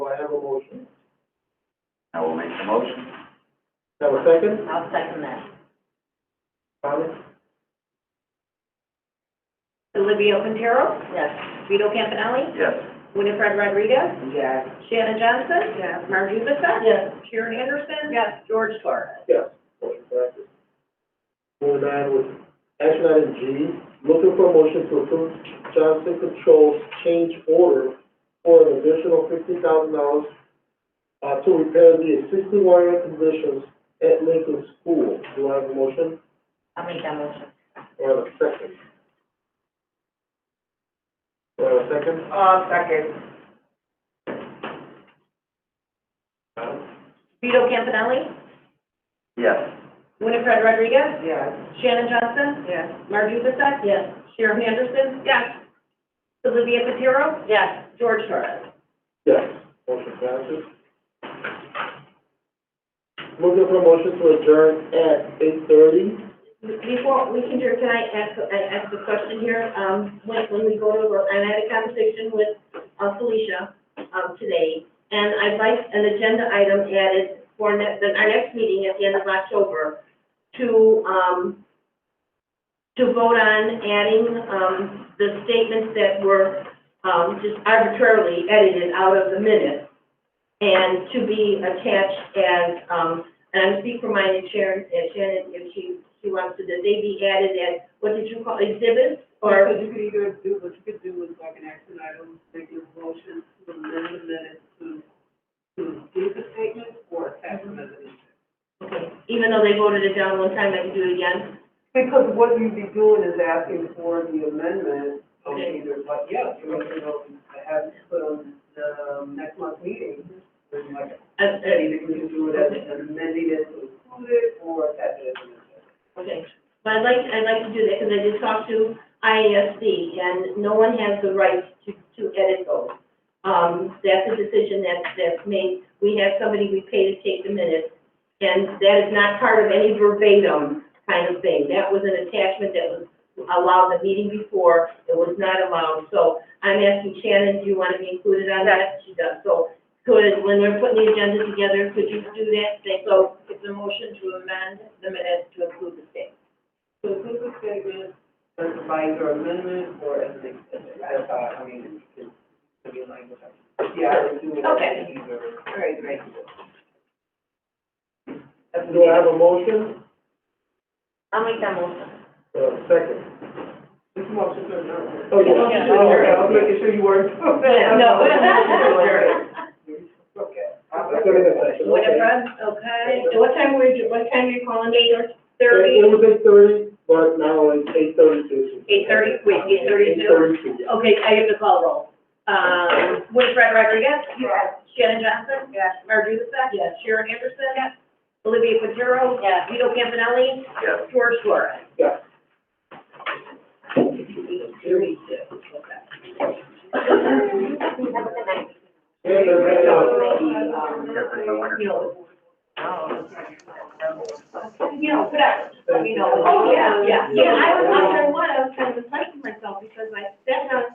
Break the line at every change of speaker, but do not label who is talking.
have a motion?
I will make the motion.
Have a second?
I'll second that.
Comments?
Olivia Quintero,
Yes.
Vito Campanelli,
Yes.
Winifred Rodriguez,
Yes.
Shannon Johnson. Yes. Marge Ubica.
Yes.
Sharon Anderson. Yes. George Torres.
Yes. Motion passes. Moving on with action item G, looking for a motion to approve Johnson Controls change order for an additional fifty thousand dollars uh, to repair the existing wiring conditions at Lincoln School. Do I have a motion
I'll make that motion.
or have a second? Do I have a second?
Uh, second.
Vito Campanelli,
Yes.
Winifred Rodriguez,
Yes.
Shannon Johnson,
Yes.
Marge Ubica,
Yes.
Sharon Anderson. Yes. Olivia Quintero,
Yes.
George Torres.
Yes, motion passes. Looking for a motion to adjourn at eight thirty.
Before we can, hear, can I ask, I ask a question here? Um, when, when we go to, work, I had a conversation with uh, Felicia, um, today, and I'd like an agenda item added for ne- the, our next meeting at the end of October to, um, to vote on adding, um, the statements that were, um, just arbitrarily edited out of the minutes and to be attached as, um, and I speak for my Sharon, uh, Shannon, if she, she wants to, that they be added as, what did you call, exhibits? Or,
Because you could either do, what you could do is like an action item, make a motion to amend the minutes to, to give the statement or attach them as an exhibit.
okay, even though they voted it down one time, I can do it again?
Because what you'd be doing is asking for the amendment of either, but yeah, you know, you know, have it put on the next month's meeting. And like,
Uh,
that
uh,
either you can do it as an amending it to include it or attach it as an exhibit.
Okay, but I'd like, I'd like to do that, because I did talk to IASD, and no one has the right to, to edit those. Um, that's a decision that's, that's made, we have somebody we pay to take the minutes, and that is not part of any verbatim kind of thing. That was an attachment that was allowed the meeting before, it was not allowed, so I'm asking Shannon, do you want to be included on that? She does, so could, when we're putting the agenda together, could you do that? Thank you.
So it's a motion to amend the minutes to include the state.
So include the statement as a minor amendment or as an exhibit, that's how, I mean, it's, it's be language. Yeah, I would do it as
Okay.
either.
All right, great.
Do I have a motion?
I'll make that motion.
Uh, second.
This motion to adjourn.
Oh, yeah.
Yeah.
Oh, okay, I was making sure you weren't.
No.
Okay.
That's what it is.
Winifred?
Okay, so what time were you, what time are you calling, eight or thirty?
It was eight thirty, but now it's eight thirty-two.
Eight thirty, wait, eight
Eight
thirty-two?
thirty-two.
Okay, I have the call roll. Um, Winifred Rodriguez? Yes. Shannon Johnson? Yes. Marge Ubica? Yes. Sharon Anderson? Yes. Olivia Quintero?
Yes.
Vito Campanelli?
Yes.
George Flores?
Yes. And the red dot.
Yes, it's a winner.
You know,
Oh.
you know, oh, whatever.
Thank
you
you.
know. Oh, yeah, yeah. Yeah, I was wondering what, I was kind of impressed with myself because I, that's not